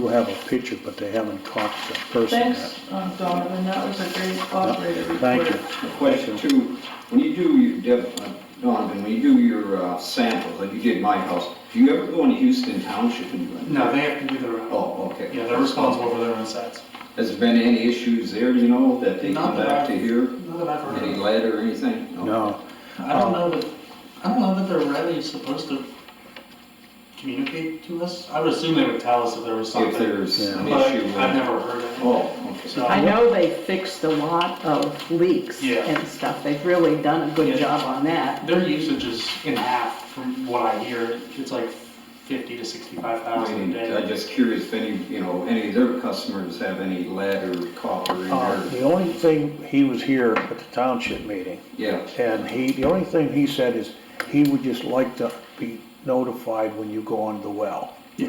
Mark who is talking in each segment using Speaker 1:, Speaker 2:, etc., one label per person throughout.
Speaker 1: do have a picture, but they haven't caught the person
Speaker 2: Thanks,
Speaker 1: yet.
Speaker 2: um, Donovan, that was a great operator report.
Speaker 1: Thank you.
Speaker 3: Question two, when you do, your Dev- uh, Donovan, when you do your uh, samples, like you did in my house, do you ever go into Houston Township and do it?
Speaker 4: No, they have to do their own.
Speaker 3: Oh, okay.
Speaker 4: Yeah, they're responsible for their own sites.
Speaker 3: Has there been any issues there, you know, that they come
Speaker 4: Not that
Speaker 3: back to
Speaker 4: I-
Speaker 3: here?
Speaker 4: Not that I've heard
Speaker 3: Any uh,
Speaker 4: of.
Speaker 3: lead or anything?
Speaker 1: No,
Speaker 4: I don't know that, I don't know that they're really supposed to communicate to us. I would assume they would tell us if there was
Speaker 3: If
Speaker 4: something,
Speaker 3: there's an
Speaker 4: but
Speaker 3: issue.
Speaker 4: I've never heard of it.
Speaker 3: Oh, okay.
Speaker 4: So,
Speaker 5: I know they fixed a lot of leaks
Speaker 4: Yeah.
Speaker 5: and stuff, they've really done a
Speaker 4: Yeah.
Speaker 5: good job on that.
Speaker 4: Their usage is in half from what I hear. It's like fifty to sixty-five
Speaker 3: I
Speaker 4: thousand a
Speaker 3: mean, I'm
Speaker 4: day.
Speaker 3: just curious if any, you know, any of their customers have any lead or copper in
Speaker 1: uh,
Speaker 3: their,
Speaker 1: the only thing, he was here at the township meeting,
Speaker 3: yeah.
Speaker 1: and he, the only thing he said is, he would just like to be notified when you go on the well.
Speaker 4: Yeah.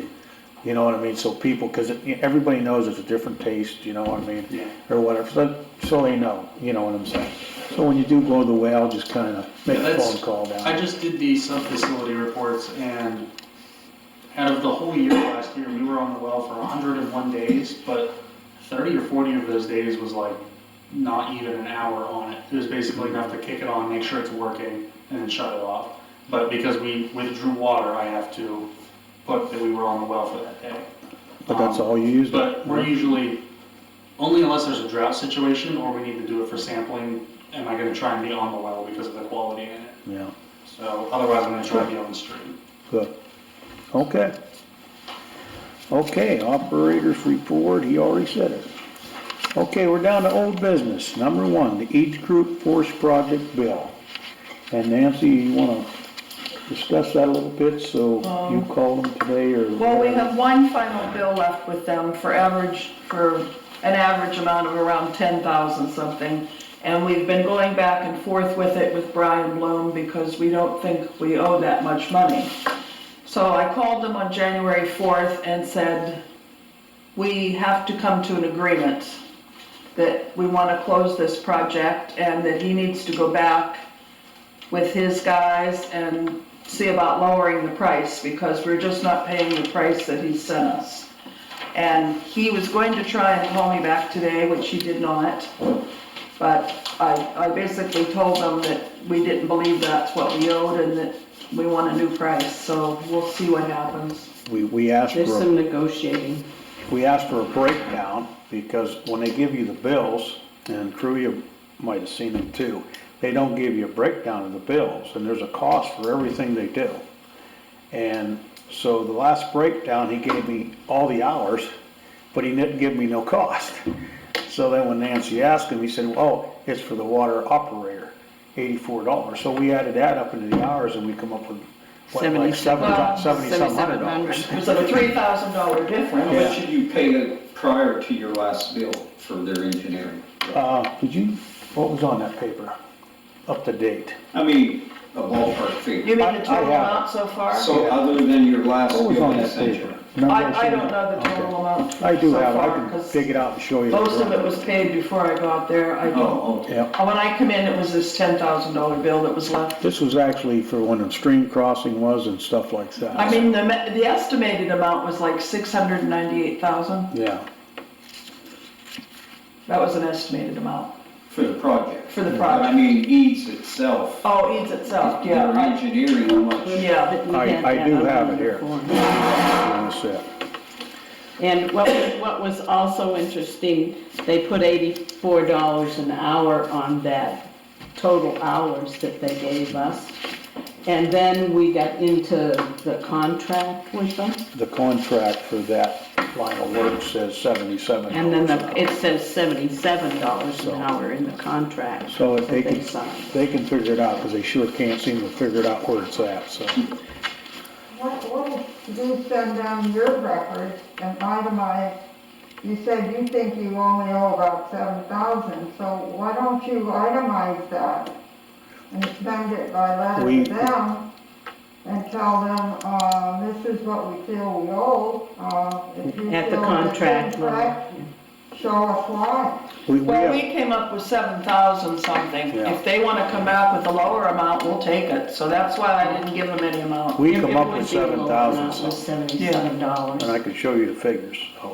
Speaker 1: You know what I mean, so people, because everybody knows it's a different taste, you know what I mean?
Speaker 4: Yeah.
Speaker 1: Or whatever, so, so they know, you know what I'm saying? So when you do go to the well, just kind of make
Speaker 4: Yeah,
Speaker 1: a
Speaker 4: that's-
Speaker 1: phone call down.
Speaker 4: I just did the sub-facility reports and out of the whole year last year, we were on the well for hundred and one days, but thirty or forty of those days was like not even an hour on it. It was basically enough to kick it on, make sure it's working, and then shut it off. But because we withdrew water, I have to put that we were on the well for that day.
Speaker 1: But that's
Speaker 4: Um,
Speaker 1: all you use? it?
Speaker 4: But we're usually, only unless there's a drought situation or we need to do it for sampling, am I gonna try and be on the well because of the quality in it.
Speaker 1: Yeah,
Speaker 4: So otherwise, I'm gonna try to be on the street.
Speaker 1: good. Okay. Okay, operators report, he already said it. Okay, we're down to old business. Number one, the Eads Group Force Project bill. And Nancy, you wanna discuss that a little bit, so you called them today or?
Speaker 2: Um, Well, we have one final bill left with them for average, for an average amount of around ten thousand something. And we've been going back and forth with it with Brian Bloom because we don't think we owe that much money. So I called them on January fourth and said, we have to come to an agreement that we want to close this project and that he needs to go back with his guys and see about lowering the price because we're just not paying the price that he sent us. And he was going to try and call me back today, which he did not. But I, I basically told them that we didn't believe that's what we owed and that we want a new price, so we'll see what happens.
Speaker 1: We, we asked
Speaker 5: There's
Speaker 1: for,
Speaker 5: some negotiating.
Speaker 1: we asked for a breakdown, because when they give you the bills, and crew, you might have seen them too, they don't give you a breakdown of the bills, and there's a cost for everything they do. And so the last breakdown, he gave me all the hours, but he didn't give me no cost. So then when Nancy asked him, he said, oh, it's for the water operator, eighty-four dollars. So we added that up into the hours and we come up with, what, like seven,
Speaker 5: Well,
Speaker 1: seventy-some hundred dollars.
Speaker 5: 7,700.
Speaker 2: It was a three thousand dollar
Speaker 3: How
Speaker 2: difference.
Speaker 3: much did you pay it prior to your last bill for their engineering?
Speaker 1: Uh, did you, what was on that paper? Up to date?
Speaker 3: I mean, a ballpark figure.
Speaker 2: You mean
Speaker 1: I-
Speaker 2: the
Speaker 1: I
Speaker 2: total
Speaker 1: have it.
Speaker 2: amount so far?
Speaker 3: So other than your last
Speaker 1: What was
Speaker 3: bill
Speaker 1: on
Speaker 3: this
Speaker 1: that paper?
Speaker 3: century?
Speaker 1: Remember
Speaker 2: I, I
Speaker 1: said-
Speaker 2: don't know the total
Speaker 1: Okay.
Speaker 2: amount so far.
Speaker 1: I do have, it. I can
Speaker 2: 'cause
Speaker 1: dig it out and show you.
Speaker 2: Most of it was paid before I got there, I don't.
Speaker 3: Oh, okay.
Speaker 1: Yeah,
Speaker 2: Uh, When I come in, it was this ten thousand dollar bill that was left.
Speaker 1: this was actually for when the stream crossing was and stuff like that.
Speaker 2: I mean, the, ma- the estimated amount was like six hundred and ninety-eight thousand,
Speaker 1: Yeah,
Speaker 2: that was an estimated amount
Speaker 3: For the project.
Speaker 2: for the
Speaker 3: But I
Speaker 2: project.
Speaker 3: mean, Eads itself,
Speaker 2: Oh, Eads itself,
Speaker 3: their
Speaker 2: yeah, I-
Speaker 3: engineering, how much?
Speaker 2: yeah.
Speaker 5: We
Speaker 1: I-
Speaker 5: had
Speaker 1: I
Speaker 5: that
Speaker 1: do
Speaker 5: on
Speaker 1: have it
Speaker 5: the
Speaker 1: here.
Speaker 5: form.
Speaker 1: that's it.
Speaker 5: And what, what was also interesting, they put eighty-four dollars an hour on that total hours that they gave us. And then we got into the contract with them,
Speaker 1: The contract for that line of work says seventy-seven.
Speaker 5: and then
Speaker 1: dollars an
Speaker 5: the-
Speaker 1: hour.
Speaker 5: it says seventy-seven dollars an hour in the contract.
Speaker 1: So if they
Speaker 5: that
Speaker 1: can,
Speaker 5: signed.
Speaker 1: they can figure it out, because they sure can't seem to figure it out where it's at, so.
Speaker 6: What, what did you send down your record and itemize? You said you think you only owe about seven thousand, so why don't you itemize that? And send it by
Speaker 1: We-
Speaker 6: letter to them and tell them, uh, this is what we feel we owe, uh, if you feel.
Speaker 5: At the
Speaker 6: it's
Speaker 5: contract level.
Speaker 6: incorrect, show us why.
Speaker 1: We, we
Speaker 2: Well,
Speaker 1: have,
Speaker 2: we came up with seven thousand something.
Speaker 1: Yeah.
Speaker 2: If they wanna come back with a lower amount, we'll take it. So that's why I didn't give them any amount.
Speaker 1: we
Speaker 5: It-
Speaker 1: come
Speaker 5: it
Speaker 1: up
Speaker 5: would
Speaker 1: with
Speaker 5: be a
Speaker 1: seven
Speaker 5: lower amount
Speaker 1: thousand
Speaker 5: with
Speaker 1: something,
Speaker 5: Seventy-seven dollars.
Speaker 1: and I can show you the figures, so.